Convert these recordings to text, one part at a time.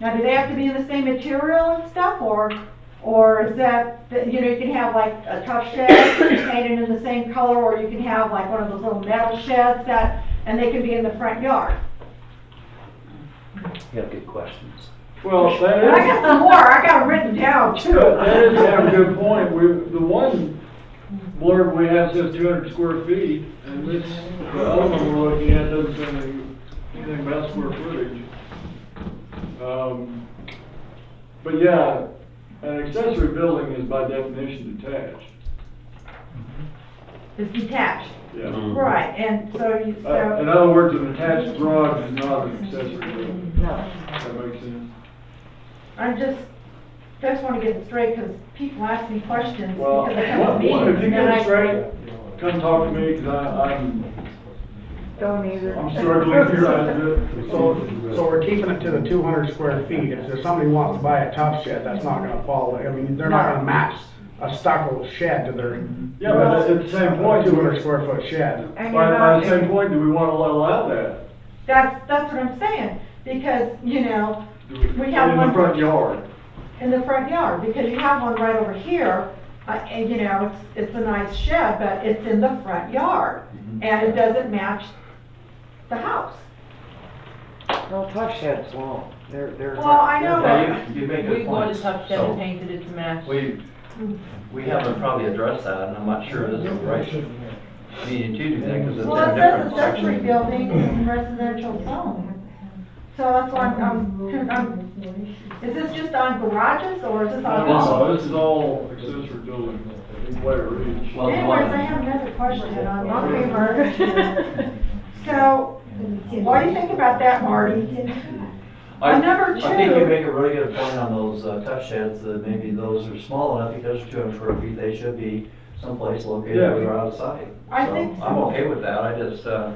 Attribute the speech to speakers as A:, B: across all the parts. A: Now, do they have to be in the same material and stuff, or, or is that, that, you know, you can have like a tough shed painted in the same color, or you can have like one of those little metal sheds that, and they can be in the front yard?
B: You have good questions.
C: Well,
A: And I
C: that
A: got some more, I got it written down
C: is,
A: too.
C: that is a good point. We, the one blurb we have says two hundred square feet, and this, the other one we're looking at doesn't say anything, anything about square footage. Um, but yeah, an accessory building is by definition detached,
A: It's detached,
C: yeah.
B: Mhm.
A: right, and so you,
C: Uh, in
A: so,
C: other words, an attached garage is not an accessory building.
A: no,
C: That makes sense.
A: I'm just, just wanna get it straight, cause people ask me questions
C: Well,
A: because they come to
C: what- what- if you
A: meetings, and
C: get it
A: I
C: straight, come talk to me, cause I, I'm,
A: don't either.
C: I'm struggling here, I do.
D: So, so we're keeping it to the two hundred square feet, if somebody wants to buy a tough shed, that's not gonna fall, I mean, they're not gonna match a stucco shed to their.
C: Yeah, but at the same point,
D: Two
C: do we-
D: hundred square foot shed.
A: And
C: by,
A: you're
C: by
A: not-
C: the same point, do we wanna allow that?
A: That's, that's what I'm saying, because, you know,
C: Do we-
A: We have
C: In
A: one-
C: the front yard.
A: in the front yard, because you have one right over here, uh, and, you know, it's, it's a nice shed, but it's in the front yard, and it doesn't match the house.
E: Well, tough sheds won't, they're, they're.
A: Well, I know that,
B: Yeah, you, you make
F: We
B: good
F: want
B: points.
F: to touch that and painted it to match.
B: So, We, we haven't probably addressed that, and I'm not sure this is the right meeting to do that, because it's
A: well,
B: a
A: it says
B: different
A: accessory
B: section.
A: building in residential zone. So that's why I'm, I'm- I'm, is this just on garages, or is this on all?
C: No, this is all accessory building, in Blair Ridge.
B: Well, the
A: Anyways, I
B: one,
A: have another question on Mockingbird. So, what do you think about that, Marty?
B: I,
A: On number
B: I think you
A: two-
B: make a really good point on those uh, tough sheds, that maybe those are small enough, because two hundred square feet, they should be someplace located
C: Yeah.
B: where they're out of sight.
A: I
B: So,
A: think so.
B: I'm okay with that, I just, uh.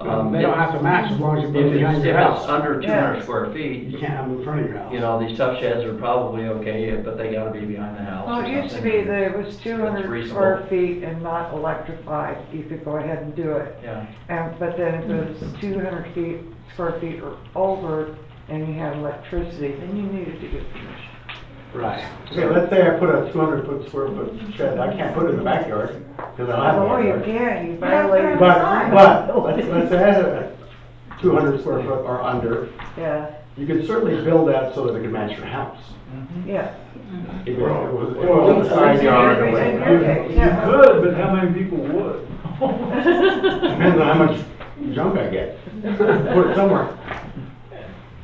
B: um,
D: They don't have to match as long as you
B: If
D: put it
B: it's,
D: behind
B: if
D: your
B: it's
D: house.
B: under two hundred square feet,
D: You can't have it in front of your house.
B: you know, these tough sheds are probably okay, but they gotta be behind the house
E: Well,
B: or
E: it used to
B: something.
E: be that it was two hundred
B: reasonable.
E: square feet and not electrified, you could go ahead and do it.
B: Yeah.
E: And, but then if it was two hundred feet, square feet or over, and you had electricity, then you needed to get permission.
D: Right.
G: So let's say I put a two hundred foot square foot shed, I can't put it in the backyard, because I don't
E: Oh,
G: have a
E: you
G: backyard.
E: can, you
A: Yeah,
E: violated.
A: but-
G: But, but, let's, let's say I had a two hundred square foot or under,
E: Yeah,
G: you could certainly build that so that it could match your house.
E: yeah.
G: If it was, if it was in the side yard or whatever.
E: Okay,
C: You
E: yeah.
C: could, but how many people would?
G: Depends on how much junk I get, put it somewhere.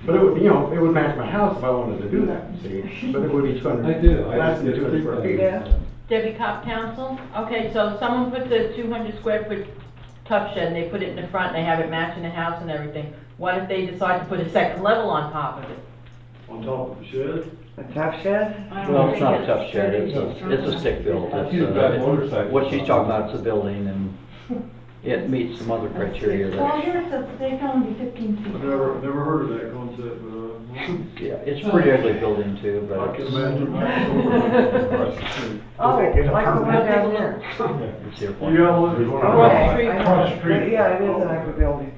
G: But it would, you know, it would match my house if I wanted to do that, see, but it would be two hundred.
D: I do. I
G: Less than
D: just
G: two
D: think
G: hundred square
D: that-
G: feet.
E: Yeah.
F: Debbie Cop Council, okay, so someone puts a two hundred square foot tough shed, and they put it in the front, and they have it matching the house and everything. What if they decide to put a second level on top of it?
C: On top of the shed?
E: A tough shed?
B: Well, it's not a tough shed, it's a, it's a stick build. It's,
H: She's got
B: uh,
H: motorcycles.
B: What she's talking about is a building and it meets some other criteria
A: Well,
B: that,
A: here it says they can only be fifteen feet.
C: I've never, never heard of that concept, but,
B: yeah, it's a pretty ugly building too,
C: uh,
B: but
C: I can
B: it's,
C: imagine. that.
E: Oh,
G: Is it- is it
E: like the one
G: permanent?
E: down there.
B: it's your
C: You
B: point.
C: got one?
G: There's one
E: Okay,
G: on
E: I
G: the-
E: know.
H: Across the street.
E: Yeah, it is an ugly building.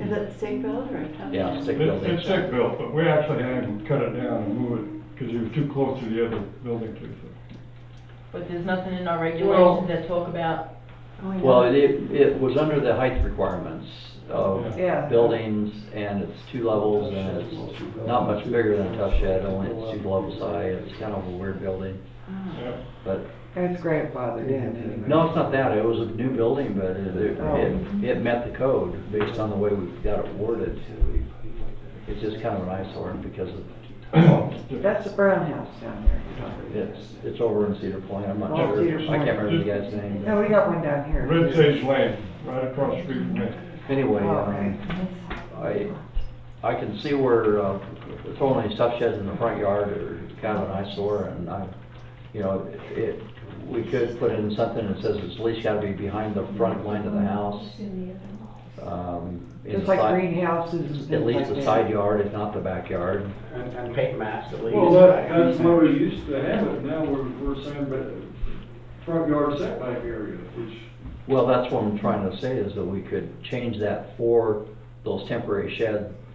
I: Is it stick built or a tough?
B: Yeah, stick
H: It's, it's
B: building.
H: stick built, but we actually had to cut it down and move it, because it was too close to the other building too.
F: But there's nothing in our
C: Well-
F: regulations that talk about,
I: Oh, yeah.
B: Well, it, it was under the height requirements of
E: Yeah.
B: buildings and it's two levels and it's not much bigger than a tough shed, only it's two levels high. It's kind of a weird building,
H: Yeah.
B: but
E: It's grandfathered in anyway.
B: No, it's not that, it was a new building, but it,
E: Oh.
B: it, it met the code based on the way we got it worded. It's just kind of an eyesore because of,
E: That's the brown house down there. you're talking about.
B: it's, it's over in Cedar Point, I'm not
E: Oh,
B: sure, I
E: Cedar
B: can't
E: Point. Oh,
B: remember the guy's name.
E: No, we got one down here.
H: Red Sage Lane, right across the street from me.
B: Anyway,
E: Oh, okay. Oh,
B: um, I, I can see where, uh, throwing these tough sheds in the front yard are kind of an eyesore, and I, you know, it, we could put in something that says it's at least gotta be behind the front line of the house. Um, in
E: Just
B: the
E: like
B: side-
E: greenhouses and things
B: At least
E: like
B: the
E: that.
B: side yard, if not the backyard.
G: And, and paint masks at least.
C: Well, that, that's where we used to have it, now we're, we're saying, but front yard setback area, which
B: Well, that's what I'm trying to say, is that we could change that for those temporary shed